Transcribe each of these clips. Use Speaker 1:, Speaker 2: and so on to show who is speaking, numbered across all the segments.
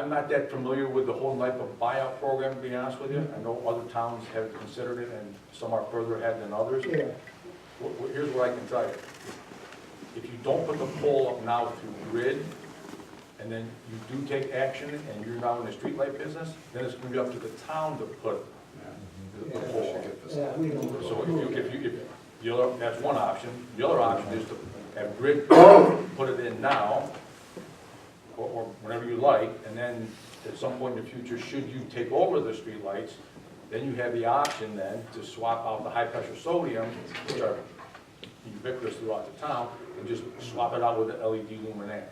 Speaker 1: I'm not that familiar with the whole NIPA buyout program, to be honest with you. I know other towns have considered it, and some are further ahead than others.
Speaker 2: Yeah,
Speaker 1: Well, well, Here's what I can tell you. If you don't put the pole up now through grid, and then you do take action, and you're now in the streetlight business, then it's gonna be up to the town to put the- the pole up.
Speaker 2: yeah, we don't.
Speaker 1: So if you, if you, if, the other, that's one option. The other option is to have grid put it in now, or, or whenever you like, and then at some point in the future, should you take over the streetlights, then you have the option then to swap out the high-pressure sodium, which are ubiquitous throughout the town, and just swap it out with the LED luminaire.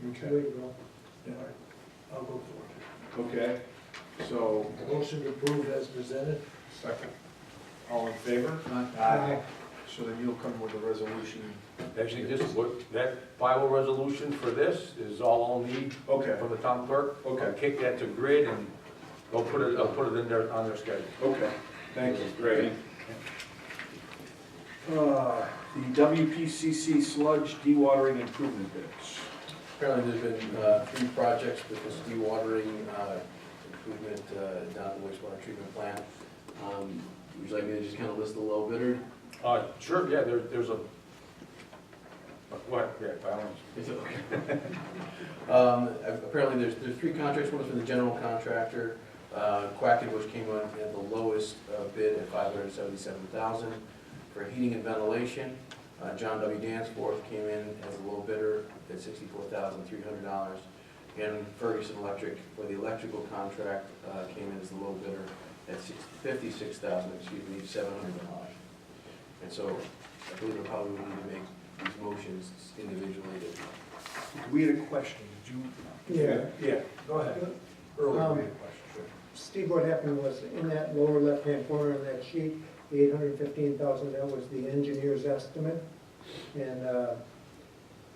Speaker 2: There
Speaker 3: Okay,
Speaker 2: you go. I'll go
Speaker 3: okay, so,
Speaker 2: for it. Motion to approve as presented.
Speaker 3: second, all in favor?
Speaker 2: Aye.
Speaker 3: So then you'll come with a resolution.
Speaker 1: Actually, this, is what, that final resolution for this is all I'll need
Speaker 3: Okay,
Speaker 1: from the town clerk.
Speaker 3: Okay.
Speaker 1: I'll Kick that to grid and they'll put it, I'll put it in their, on their schedule.
Speaker 3: okay, thank you, great. Uh, The WPCC sludge dewatering improvement bids.
Speaker 4: Apparently, there's been uh, three projects with this dewatering uh, improvement uh, down at the wastewater treatment plant. Um, Would you like me to just kind of list the low bidder?
Speaker 1: Uh, sure, yeah, there, there's a, what, yeah, by all means.
Speaker 4: It's okay. Um, Apparently, there's, there's three contracts, one's from the general contractor, uh, Quacken, which came on at the lowest uh, bid at five hundred and seventy-seven thousand for heating and ventilation. Uh, John W. Danforth came in as a low bidder at sixty-four thousand three hundred dollars. And Ferguson Electric, for the electrical contract, uh, came in as the low bidder at six, fifty-six thousand, excuse me, seven hundred dollars. And so I believe I probably would need to make these motions individually to
Speaker 3: We had a question, did you?
Speaker 2: Yeah.
Speaker 3: Yeah, go ahead. Earlier, we had a question.
Speaker 2: Steve, what happened was in that lower left-hand corner of that sheet, the eight hundred fifteen thousand, that was the engineer's estimate. And, uh,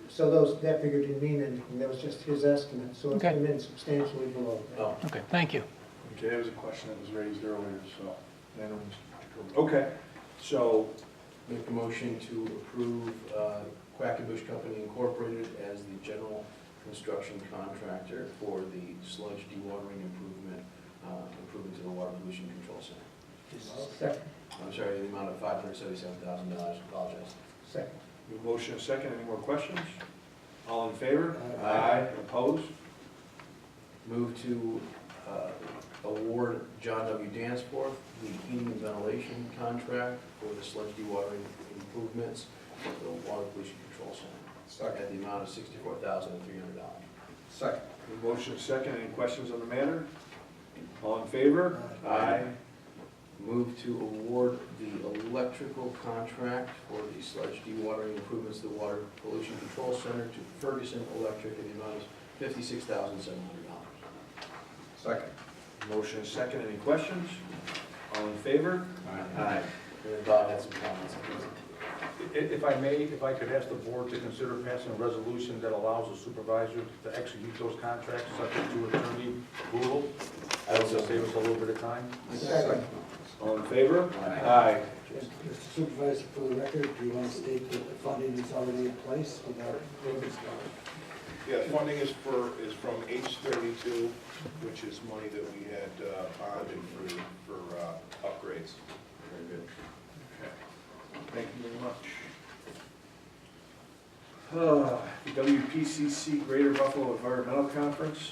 Speaker 2: so those, that figure didn't mean anything, that was just his estimate, so it
Speaker 5: Okay.
Speaker 2: came in substantially below.
Speaker 4: Oh,
Speaker 5: Okay, thank you.
Speaker 3: Okay, that was a question that was raised earlier, so. I don't- Okay, so,
Speaker 4: make a motion to approve uh, Quackenbush Company Incorporated as the general construction contractor for the sludge dewatering improvement, uh, improvement to the water pollution control center.
Speaker 2: Second,
Speaker 4: I'm sorry, the amount of five hundred seventy-seven thousand dollars, apologize.
Speaker 2: second.
Speaker 3: we have a motion and a second, any more questions? All in favor?
Speaker 4: Aye.
Speaker 3: Opposed?
Speaker 4: Move to uh, award John W. Danforth the heating and ventilation contract for the sludge dewatering improvements to the water pollution control center at the amount of sixty-four thousand three hundred dollars.
Speaker 3: Second. Motion and second, any questions on the matter? All in favor?
Speaker 4: Aye. Move to award the electrical contract for the sludge dewatering improvements to the Water Pollution Control Center to Ferguson Electric in the amount of fifty-six thousand seven hundred dollars.
Speaker 3: Second. Motion and second, any questions? All in favor?
Speaker 4: And then Bob had some comments.
Speaker 1: I- If I may, if I could ask the board to consider passing a resolution that allows the supervisor to execute those contracts subject to attorney approval,
Speaker 4: I
Speaker 1: so
Speaker 4: also
Speaker 1: save us a little bit of time.
Speaker 2: Second.
Speaker 3: All in favor?
Speaker 4: Aye.
Speaker 3: Aye.
Speaker 6: Mr. Supervisor, for the record, do you want to state that the funding is already in place without?
Speaker 7: Yeah, funding is for, is from H thirty-two, which is money that we had uh, bonded for, for uh, upgrades.
Speaker 4: Very good.
Speaker 3: Thank you very much. Uh, WPCC Greater Buffalo Environmental Conference.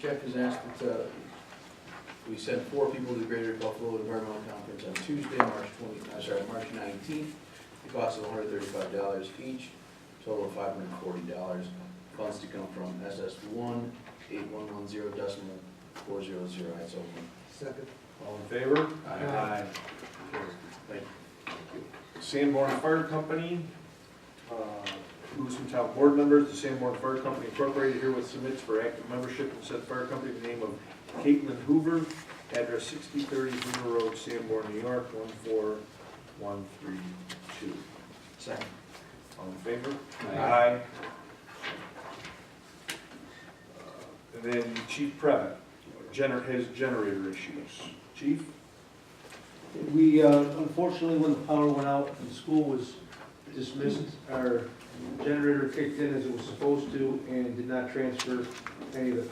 Speaker 4: Jeff has asked that, uh, we send four people to the Greater Buffalo Environmental Conference on Tuesday, March twenty, I'm sorry, March nineteenth. The cost of hundred thirty-five dollars each, total of five hundred forty dollars. Funds to come from SS one eight one one zero decimal four zero zero, oh that's open.
Speaker 6: Second,
Speaker 3: All in favor?
Speaker 4: Aye. Thank you.
Speaker 3: Sanborn Fire Company, uh, Lewiston Town Board members, the Sanborn Fire Company Incorporated herewith submits for active membership in said fire company the name of Caitlin Hoover, address sixty thirty Hoover Road, Sanborn, New York, one four one three two.
Speaker 4: Second.
Speaker 3: All in favor?
Speaker 4: Aye.
Speaker 3: Uh, And then Chief Prevent, gener, his generator issues. Chief?
Speaker 8: We, uh, unfortunately, when the power went out and school was
Speaker 3: dismissed our generator kicked in as it was supposed to and did not transfer any of the